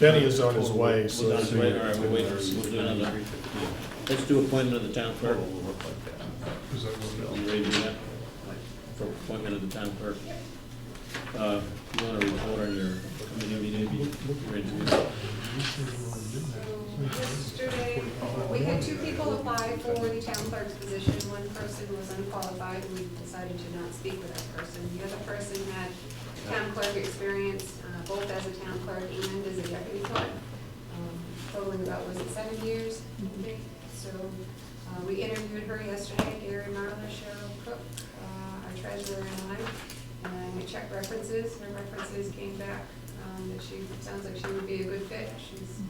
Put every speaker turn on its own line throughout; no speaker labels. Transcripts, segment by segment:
Benny is on his way, so.
We're on his way, all
it's-
right, we'll wait, we'll do another. Let's do appointment of the town clerk.
Is that what
You ready to do that? For appointment of the town clerk. Uh, You want to report on your committee meeting? if you're into it?
Yesterday, we had two people apply for the town clerk's position. One person was unqualified, and we decided to not speak with that person. The other person had town clerk experience, uh, both as a town clerk and as a deputy clerk, um, totaling about, was it seven years? I think. So uh, we interviewed her yesterday, Gary Marler, Cheryl Cook, uh, our treasurer and I, and we checked references. Her references came back um, that she, sounds like she would be a good fit. She's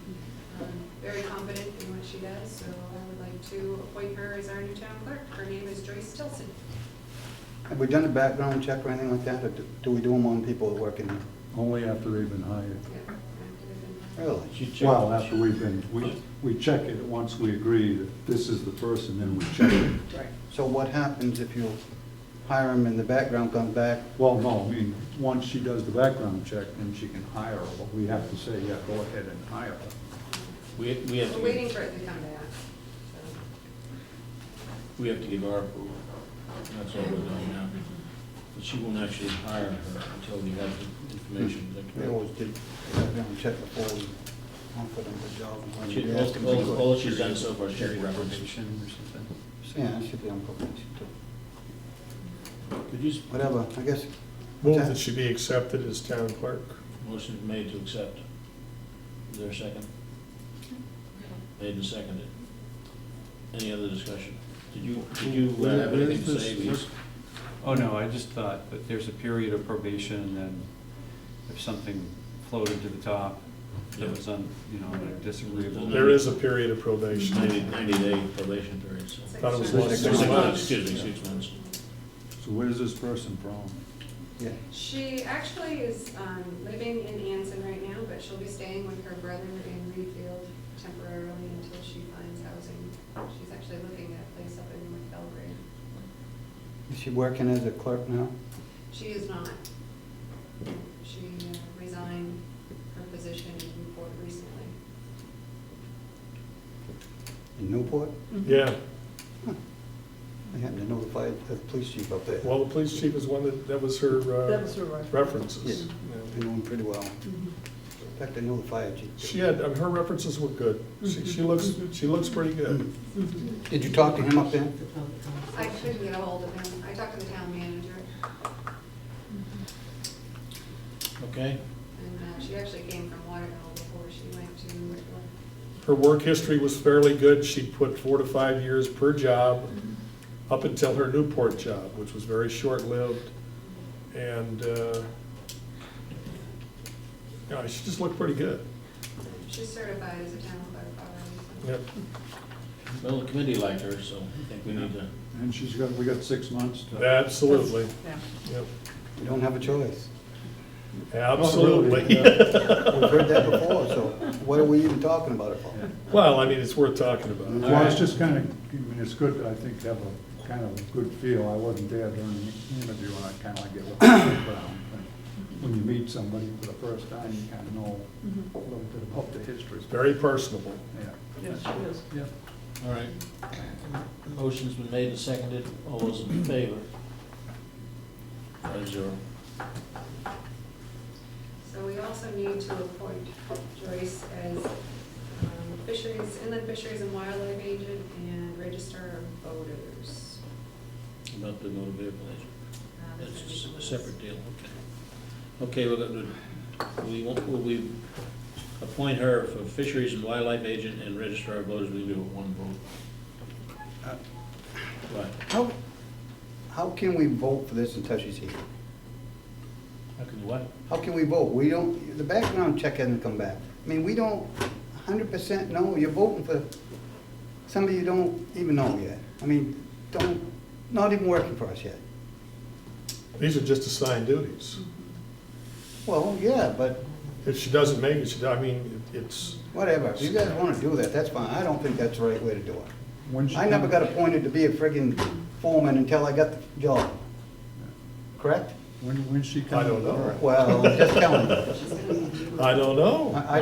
um, very competent in what she does, so I would like to appoint her as our new town clerk. Her name is Joyce Tilson.
Have we done a background check or anything like that, or do- do we do them on people who work in here?
Only after they've been hired.
Yeah, I have to give them-
Really?
She checked-
Well, after we've been, we, we check it once we agree that this is the person, then we check it.
So what happens if you hire them and the background comes back?
Well, no, I mean, once she does the background check, then she can hire her, but we have to say, yeah, go ahead and hire her.
We, we have
We're waiting
to,
for it to come back. so.
we have to give our approval. That's all we're doing now. But she won't actually hire her until we have the information. Is that
We
correct?
always did a background check before we offer them the job. and when
She-
we ask them
all-
to
all-
do it.
all she's done so far, is check references.
Reprobation or something?
Yeah, it should be on probation too.
Could you, s-
Whatever, I guess.
Move that she be accepted as town clerk.
motion made to accept. Is there a second? Made and seconded. Any other discussion? Did you, did you uh, have anything to say? We-
Oh, no, I just thought that there's a period of probation, and then if something floated to the top that was un, you know, disagreeable.
There is a period of probation.
Ninety, ninety day probation period, so.
Six
Thought it was
months.
one,
Six
six
Six months,
months.
excuse me, six months.
So where's this person from?
Yeah,
She actually is um, living in Anson right now, but she'll be staying with her brother in Reedfield temporarily until she finds housing. She's actually looking at a place up in North Belgrade.
is she working as a clerk now?
She is not. She uh, resigned her position in Newport recently.
In Newport?
Yeah,
I happen to know the fire, the police chief up there.
well, the police chief is one that, that was her
That
uh,
was her right.
references.
Yeah. They
Yeah.
know him pretty well.
Mhm.
In fact, I know the fire chief. too.
She had, I mean, her references were good.
Mm-hmm.
She, she looks, she looks pretty good.
Mm-hmm. Did you talk to him up there?
I couldn't get a hold of him. I talked to the town manager,
Okay,
and uh, she actually came from Waterville before she went to Whitmore.
Her work history was fairly good. She put four to five years per job
Mm-hmm.
up until her Newport job, which was very short-lived. And, uh, yeah, she just looked pretty good.
She's certified as a town clerk already. so-
Yep.
well, the committee liked her, so I think we need to,
And she's got, we got six months to.
Absolutely,
Yeah.
Yep.
You don't have a choice.
absolutely.
We've heard that before, so what are we even talking about it for?
Well, I mean, it's worth talking about.
Well, it's just kind of, I mean, it's good, I think, to have a kind of a good feel. I wasn't there during the interview, and I kind of like get what the background. and When you meet somebody for the first time, you kind of know a little bit about the history.
Very personable.
Yeah.
Yes, she is.
Yeah.
all right. Motion's been made and seconded, all those in favor? Five zero.
So we also need to appoint Joyce as um, fisheries, inland fisheries and wildlife agent and register of voters.
About the motor vehicle agent.
Uh, that's gonna be
That's
someone
a
else.
separate deal, okay. Okay, we're gonna, we won't, will we appoint her for fisheries and wildlife agent and registrar of voters, we do it one vote. Uh, Right,
How, how can we vote for this until she's here?
how can you what?
How can we vote? We don't, the background check hasn't come back. I mean, we don't hundred percent know, you're voting for somebody you don't even know yet. I mean, don't, not even working for us yet.
These are just assigned duties.
Well, yeah, but
If she doesn't make it, she, I mean, it- it's,
whatever, if you guys wanna do that, that's fine, I don't think that's the right way to do it.
When she
I never
comes-
got appointed to be a friggin' foreman until I got the job, correct?
When, when she
I
comes.
don't know.
Well, just telling you.
I don't know.
I-